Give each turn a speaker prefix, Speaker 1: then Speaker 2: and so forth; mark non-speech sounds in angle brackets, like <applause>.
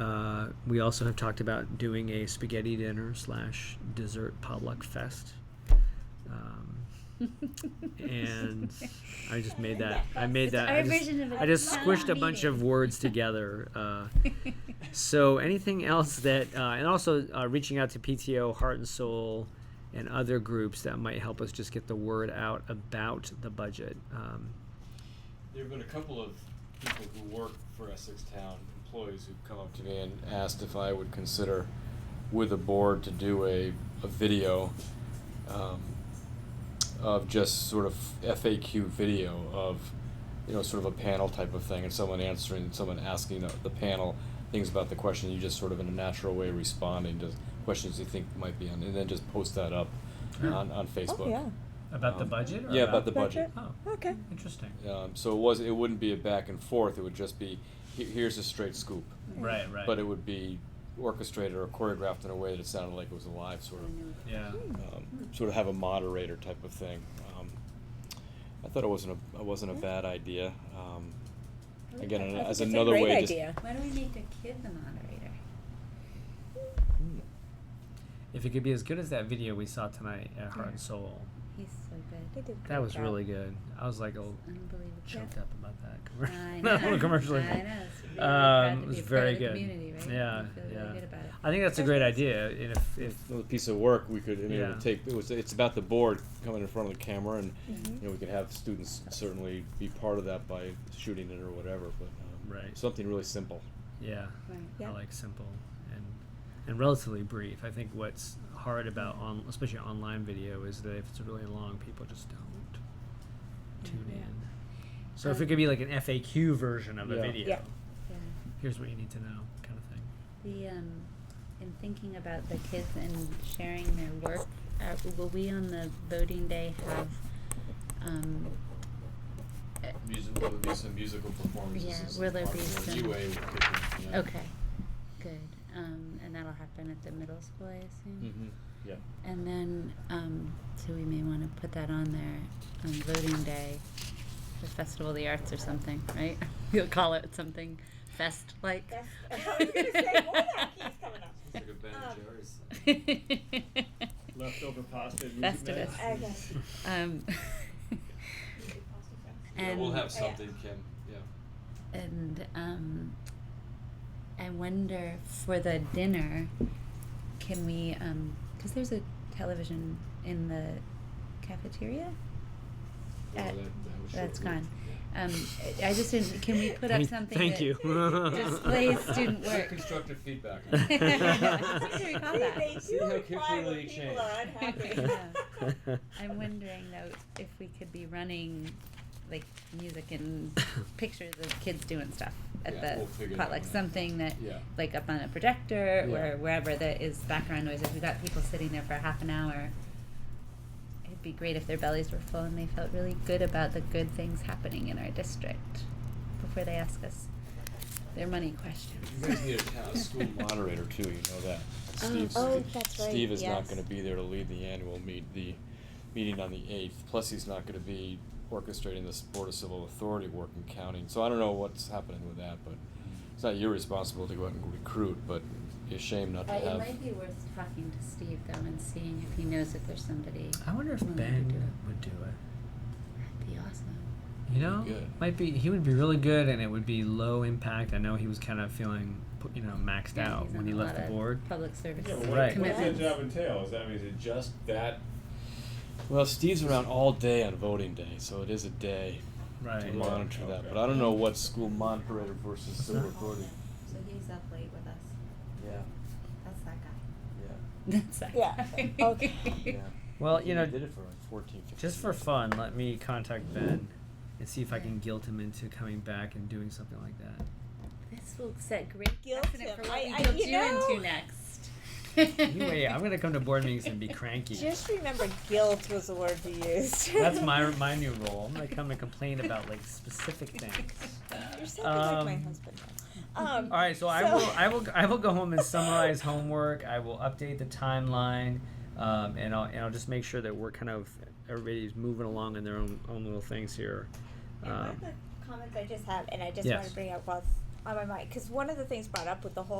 Speaker 1: Uh, we also have talked about doing a spaghetti dinner slash dessert potluck fest. Um, and I just made that. I made that.
Speaker 2: our
Speaker 1: I just,
Speaker 2: version of a
Speaker 1: I just
Speaker 2: town
Speaker 1: squished a bunch
Speaker 2: meeting.
Speaker 1: of words
Speaker 2: <laughs>
Speaker 1: together. Uh, so anything else that, uh, and also uh, reaching out to PTO, Heart and Soul, and other groups that might help us just get the word out about the budget. Um,
Speaker 3: There've been a couple of people who work for Essex Town, employees who've come up to me and asked if I would consider with a board to do a, a video um, of just sort of FAQ video of, you know, sort of a panel type of thing and someone answering, someone asking the, the panel things about the question, you just sort of in a natural way responding to questions you think might be on, and then just post that up on, on Facebook.
Speaker 4: Oh, yeah.
Speaker 1: about
Speaker 3: the Um,
Speaker 1: budget?
Speaker 3: yeah, about the budget.
Speaker 1: Oh,
Speaker 4: Okay.
Speaker 1: interesting.
Speaker 3: Um, so it was. It wouldn't be a back and forth. It would just be, he- here's a straight scoop.
Speaker 1: Right, right.
Speaker 3: But it would be orchestrated or choreographed in a way that it sounded like it was a live sort of,
Speaker 1: yeah.
Speaker 3: um, sort of have a moderator type of thing. Um, I thought it wasn't a it wasn't a bad idea. Um, again,
Speaker 4: I
Speaker 3: an-
Speaker 4: think
Speaker 3: as
Speaker 4: it's a
Speaker 3: another
Speaker 4: great
Speaker 3: way, just
Speaker 4: idea.
Speaker 2: Why don't we make a kid the moderator?
Speaker 1: If it could be as good as that video we saw tonight at Heart and Soul,
Speaker 2: He's so
Speaker 4: They
Speaker 2: good.
Speaker 4: did a
Speaker 1: that
Speaker 4: great
Speaker 1: was
Speaker 4: job.
Speaker 1: really good. I was like, oh,
Speaker 2: Unbelievable.
Speaker 1: <laughs> choked up about that <laughs>
Speaker 2: I
Speaker 1: commercial.
Speaker 2: know.
Speaker 1: that little commercial.
Speaker 2: I know. It's really proud
Speaker 1: Um,
Speaker 2: to
Speaker 1: it was
Speaker 2: be a part
Speaker 1: very
Speaker 2: of the
Speaker 1: good.
Speaker 2: community, right?
Speaker 1: Yeah,
Speaker 2: You feel really
Speaker 1: yeah.
Speaker 2: good about it.
Speaker 1: I think that's a great idea. And if, if
Speaker 3: if a piece of work we could, I mean, it
Speaker 1: Yeah.
Speaker 3: would take. It was. It's about the board coming in front of the camera, and
Speaker 2: Mm-hmm.
Speaker 3: you know, we could have students certainly be part of that by shooting it or whatever. But um,
Speaker 1: Right.
Speaker 3: something really simple.
Speaker 1: yeah,
Speaker 2: Right.
Speaker 1: I
Speaker 4: Yeah.
Speaker 1: like simple and and relatively brief. I think what's hard about on especially online video is that if it's really long, people just don't tune in. So if it could be like an FAQ version of a
Speaker 3: Yeah.
Speaker 1: video,
Speaker 4: Yeah.
Speaker 2: Yeah.
Speaker 1: here's what you need to know, kind of thing.
Speaker 2: The um, in thinking about the kids and sharing their work, uh, will we on the voting day have um, uh,
Speaker 3: Music, will there be some musical performances?
Speaker 2: Yeah,
Speaker 3: and some
Speaker 2: will there be
Speaker 3: popular
Speaker 2: some-
Speaker 3: UA will kick in, yeah.
Speaker 2: Okay, good. Um, and that'll happen at the middle school, I assume.
Speaker 3: Mhm, yeah.
Speaker 2: And then, um, so we may want to put that on there on voting day, the Festival of the Arts or something, right? <laughs> You'll call it something fest like.
Speaker 4: Fest- I was gonna say,
Speaker 2: <laughs>
Speaker 4: boy, that keeps coming up.
Speaker 3: Like a Ben and
Speaker 4: Um,
Speaker 3: Jerry's.
Speaker 5: Leftover pasta. and music
Speaker 2: Festivus.
Speaker 5: mix.
Speaker 4: Okay.
Speaker 3: <laughs>
Speaker 2: Um,
Speaker 3: Yeah,
Speaker 2: and
Speaker 3: we'll have
Speaker 4: Oh, yeah.
Speaker 3: something, Kim, yeah.
Speaker 2: and um, I wonder for the dinner, can we? Because there's a television in the cafeteria.
Speaker 3: Well,
Speaker 2: Uh,
Speaker 3: that- that was
Speaker 2: That's
Speaker 3: short-lived,
Speaker 2: gone.
Speaker 3: yeah.
Speaker 2: Um, I I just didn't. Can we put up
Speaker 1: Thank-
Speaker 2: something?
Speaker 1: Thank
Speaker 2: that-
Speaker 1: you.
Speaker 2: <laughs>
Speaker 1: <laughs>
Speaker 2: displays student
Speaker 3: Good
Speaker 2: work.
Speaker 3: Constructive
Speaker 2: <laughs>
Speaker 3: feedback.
Speaker 2: What do
Speaker 4: See,
Speaker 2: you call that?
Speaker 4: they
Speaker 3: See
Speaker 4: do
Speaker 3: how
Speaker 4: reply
Speaker 3: quickly
Speaker 4: when
Speaker 3: they
Speaker 4: people are
Speaker 3: <laughs>
Speaker 2: change.
Speaker 4: unhappy.
Speaker 2: I'm wondering though if we could be running like music
Speaker 3: <coughs>
Speaker 2: and pictures of kids doing stuff at
Speaker 3: Yeah,
Speaker 2: the
Speaker 3: we'll figure that
Speaker 2: potluck,
Speaker 3: one out.
Speaker 2: something that
Speaker 3: Yeah.
Speaker 2: like up on a projector
Speaker 3: Yeah.
Speaker 2: or wherever that is background noise. If we got people sitting there for half an hour, it'd be great if their bellies were full and they felt really good about the good things happening in our district before they ask us their money questions.
Speaker 3: You guys need a town,
Speaker 2: <laughs>
Speaker 3: a school moderator too, you know that. Steve's-
Speaker 4: oh, that's right,
Speaker 3: Steve is not
Speaker 4: yes.
Speaker 3: gonna be there to lead the annual meet, the meeting on the eighth, plus he's not gonna be orchestrating this Board of Civil Authority work in county, so I don't know what's happening with that, but it's not your responsibility to go out and recruit, but it'd be a shame not to
Speaker 2: Uh,
Speaker 3: have.
Speaker 2: it might be worth talking to Steve though and seeing if he knows if there's somebody.
Speaker 1: I wonder if
Speaker 2: willing to
Speaker 1: Ben
Speaker 2: do it.
Speaker 1: would do it.
Speaker 2: That'd be awesome.
Speaker 1: You know,
Speaker 3: good.
Speaker 1: might be he would be really good, and it would be low impact. I know he was kind of feeling, you know, maxed
Speaker 2: Yeah,
Speaker 1: out
Speaker 2: he's
Speaker 1: when
Speaker 2: on
Speaker 1: he
Speaker 2: a
Speaker 1: left
Speaker 2: lot
Speaker 1: the
Speaker 2: of
Speaker 1: board.
Speaker 2: Public service
Speaker 5: Yeah, but
Speaker 1: Right.
Speaker 5: what, what does that
Speaker 2: commitments.
Speaker 5: job entail? Is that, I mean, is it just that?
Speaker 3: Well, Steve's around all day on voting day, so it is a day
Speaker 1: Right.
Speaker 3: to
Speaker 5: Yeah.
Speaker 3: monitor that.
Speaker 5: Okay.
Speaker 3: But I don't know what school moderator
Speaker 1: <laughs>
Speaker 3: versus
Speaker 1: It's
Speaker 3: civil
Speaker 1: not
Speaker 3: authority.
Speaker 2: Oh, So he's up late with us.
Speaker 3: Yeah,
Speaker 2: That's that guy.
Speaker 3: yeah,
Speaker 2: <laughs> That's that
Speaker 4: Yeah.
Speaker 2: guy. <laughs>
Speaker 4: Okay.
Speaker 3: yeah.
Speaker 1: Well,
Speaker 3: I think
Speaker 1: you know,
Speaker 3: they did it for like 14, 15
Speaker 1: Just for
Speaker 3: years.
Speaker 1: fun, let me contact Ben and see if I
Speaker 2: Yeah.
Speaker 1: can guilt him into coming back and doing something like that.
Speaker 2: This will set great
Speaker 4: Guilt
Speaker 2: precedent
Speaker 4: him.
Speaker 2: for what
Speaker 4: I-
Speaker 2: we
Speaker 4: I-
Speaker 2: guilt
Speaker 4: you
Speaker 2: you
Speaker 4: know-
Speaker 2: into next.
Speaker 1: Anyway, I'm gonna come to board meetings
Speaker 2: <laughs>
Speaker 1: and be cranky.
Speaker 4: <laughs> Just remember, guilt was the word we used.
Speaker 1: <laughs> That's my my new role. I'm gonna come and complain about like specific things.
Speaker 4: <laughs> You're something like my
Speaker 1: Um,
Speaker 4: husband. Um,
Speaker 1: All right, so, I will I will I will go home and summarize homework. I will update the timeline, um, and I'll and I'll just make sure that we're kind of everybody's moving along in their own own little things here.
Speaker 4: And one
Speaker 1: Um,
Speaker 4: of the comments I just have, and I just
Speaker 1: Yes.
Speaker 4: want to bring up while it's on my mind, because one of the things brought up with the whole